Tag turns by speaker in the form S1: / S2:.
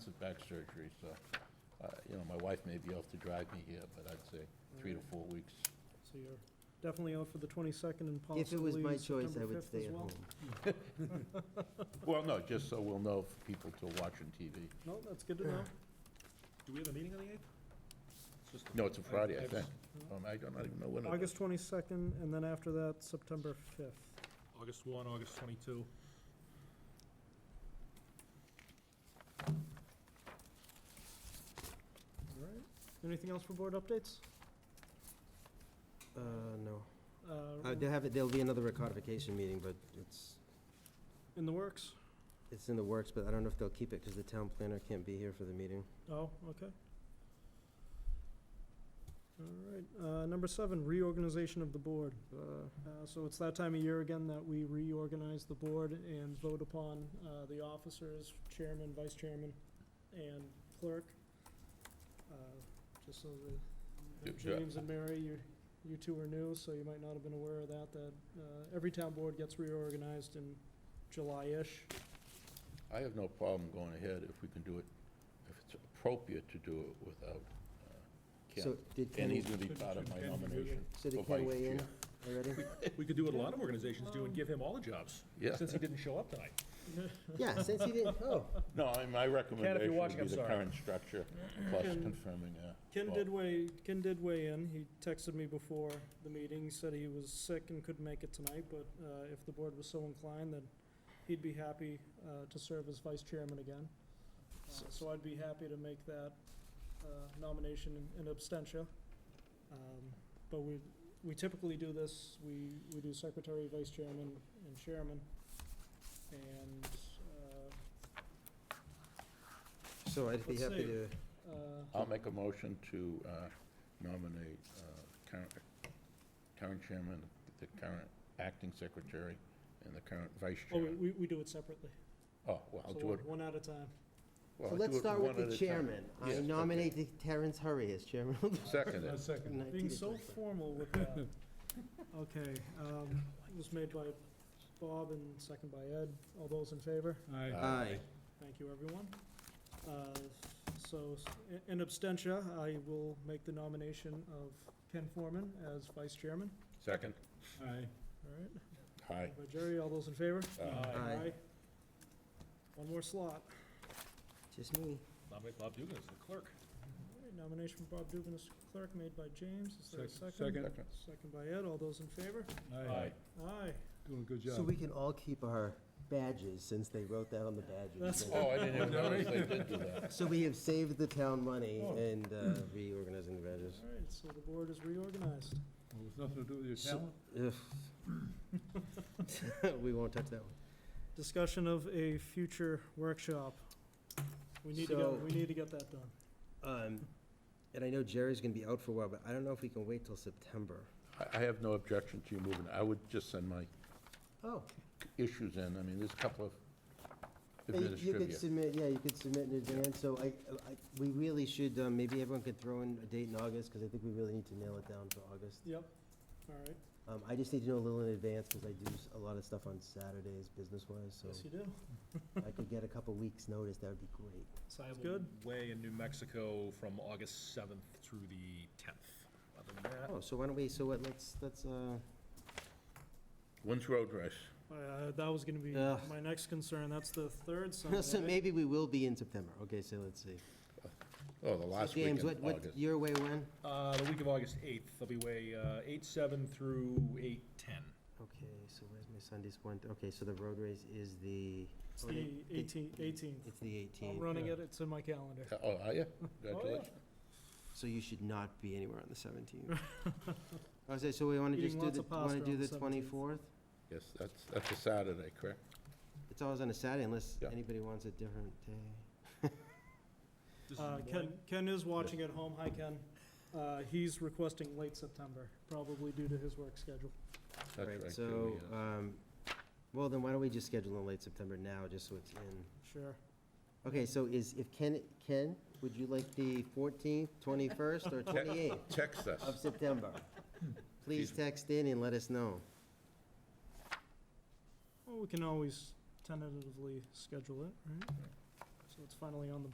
S1: back surgery, so, uh, you know, my wife may be able to drive me here, but I'd say three to four weeks.
S2: So you're definitely out for the 22nd and
S3: If it was
S2: possibly
S3: my choice, I
S2: September
S3: would
S2: 5th
S3: stay
S2: as
S3: at
S2: well?
S3: home.
S1: Well, no, just so we'll know if people still watching TV.
S2: No, that's good to know.
S4: Do we have a meeting on the 8th? Just a-
S1: No, it's a Friday, I
S4: I've-
S1: think. Um, I don't even know when it is.
S2: August 22nd, and then after that, September 5th.
S4: August 1, August 22.
S2: All right. Anything else for board updates?
S3: Uh, no.
S2: Uh,
S3: Uh, They'll have, it- there'll be another recodification meeting, but it's,
S2: In the works?
S3: it's in the works, but I don't know if they'll keep it because the town planner can't be here for the meeting.
S2: Oh, okay. All right, uh, number seven, reorganization of the board. Uh, so it's that time of year again that we reorganize the board and vote upon, uh, the officers, chairman, vice chairman, and clerk. Uh, Just so
S1: Yeah,
S2: that,
S1: yeah.
S2: James and Mary, you, you two are new, so you might not have been aware of that, that, uh, every town board gets reorganized in July-ish.
S1: I have no problem going ahead if we can do it, if it's appropriate to do it without uh,
S3: So
S1: Ken.
S3: did
S1: And he's
S3: Ken,
S1: gonna be
S4: Should-
S1: part of
S4: should
S1: my
S4: Ken be
S1: nomination.
S3: so did
S1: for
S3: Ken
S1: vice
S3: weigh in
S1: chair.
S3: already?
S4: We could do what a lot of organizations do and give him all the jobs,
S1: Yeah,
S4: since he didn't show up tonight.
S3: Yeah, since he didn't, oh,
S1: no, I- my recommendation
S4: watching,
S1: would be the
S4: I'm sorry.
S1: current structure, plus
S2: Ken-
S1: confirming, uh,
S2: Ken
S1: Well-
S2: did weigh, Ken did weigh in. He texted me before the meeting, said he was sick and couldn't make it tonight, but uh, if the board was so inclined, then he'd be happy uh, to serve as vice chairman again. Uh, So I'd be happy to make that uh, nomination in- in abstention. But we, we typically do this, we, we do secretary, vice chairman, and chairman. And uh,
S3: so I'd be
S2: Let's
S3: happy
S2: see.
S3: to,
S2: uh,
S1: I'll make a motion to uh, nominate uh, current, current chairman, the current acting secretary, and the current vice
S2: oh, we-
S1: chairman.
S2: we, we do it separately.
S1: Oh, well, I'll
S2: So
S1: do it.
S2: one- one at a time.
S1: well,
S3: so
S1: I'll
S3: let's
S1: do it
S3: start
S1: one
S3: with
S1: at a
S3: the
S1: time.
S3: chairman. I
S1: Yes, okay.
S3: nominate the Terrence Hurry as chairman. of the
S1: Second it.
S4: second.
S3: United
S2: Being so
S3: States.
S2: formal with that. Okay, um, it was made by Bob and second by Ed. All those in favor?
S3: Aye.
S2: Thank you, everyone. Uh, so, s- i- in abstention, I will make the nomination of Ken Foreman as vice chairman.
S1: Second.
S4: Aye.
S2: All right,
S1: Aye.
S2: by Jerry, all those in favor?
S1: Uh,
S3: Aye.
S2: One more slot.
S3: Just me.
S4: Nominate Bob Dugan as the clerk.
S2: All right, Nomination for Bob Dugan as clerk, made by James. Is there a second?
S1: Second.
S2: Second by Ed. All those in favor?
S1: Aye.
S2: Aye.
S4: Doing a good
S3: So we can all keep our badges since they wrote that on the badges.
S2: That's-
S1: Oh, I didn't even notice they did do that.
S3: So we have saved the town money
S2: Oh.
S3: and uh, reorganizing the badges.
S2: All right, so the board is reorganized.
S4: It's nothing to do with your
S3: So- Ugh. We won't touch that one.
S2: Discussion of a future workshop. We need to
S3: So-
S2: get, we need to get that done.
S3: Um, And I know Jerry's gonna be out for a while, but I don't know if we can wait till September.
S1: I, I have no objection to you moving. I would just send my
S3: Oh.
S1: issues in. I mean, there's a couple of
S3: Uh, You
S1: administrative.
S3: could submit, yeah, you could submit in advance, so I, I, we really should, um, maybe everyone could throw in a date in August, because I think we really need to nail it down for August.
S2: Yep, all right,
S3: Um, I just need to know a little in advance, because I do s- a lot of stuff on Saturdays, business-wise, so
S2: yes you do.
S3: if I could get a couple weeks' notice, that would be great.
S2: Sounds good.
S4: Way in New Mexico from August 7th through the 10th. Other than that,
S3: Oh, so why don't we, so what, let's, let's, uh,
S1: When's road race?
S2: Uh, that was gonna be
S3: Yeah.
S2: my next concern, that's the third
S3: so
S2: Sunday.
S3: maybe we will be in September, okay, so let's see.
S1: Oh, the
S3: So
S1: last weekend
S3: James,
S1: of
S3: what,
S1: August.
S3: what, your way when?
S4: Uh, the week of August 8th, they'll be way, uh, 8, 7 through 8, 10.
S3: Okay, so where's my Sunday's one, okay, so the road race is the,
S2: It's the eighteenth, eighteenth.
S3: it's the 18th.
S2: I'm running it, it's in my calendar.
S1: Uh, Oh, are you? Congratulations.
S3: So you should not be anywhere on the seventeenth. I was say, so we wanna
S2: Eating
S3: just do
S2: lots
S3: the,
S2: of pasta
S3: wanna do
S2: on the
S3: the
S2: 17th.
S3: twenty-fourth?
S1: Yes, that's, that's a Saturday, correct?
S3: It's always on a Saturday unless
S1: Yeah.
S3: anybody wants a different day.
S4: This is
S2: Uh,
S4: the
S2: Ken,
S4: morning.
S2: Ken is watching at home, hi Ken. Uh, he's requesting late September, probably due to his work schedule.
S1: That's right.
S3: Right,
S1: Jimmy,
S3: so,
S1: yes.
S3: um, well, then why don't we just schedule in late September now, just so it's in?
S2: Sure.
S3: Okay, so is, if Ken, Ken, would you like the fourteenth, twenty-first, or twenty-eighth
S1: Text us.
S3: of September? Please
S1: Jeez.
S3: text in and let us know.
S2: Well, we can always tentatively schedule it, right? So it's finally on the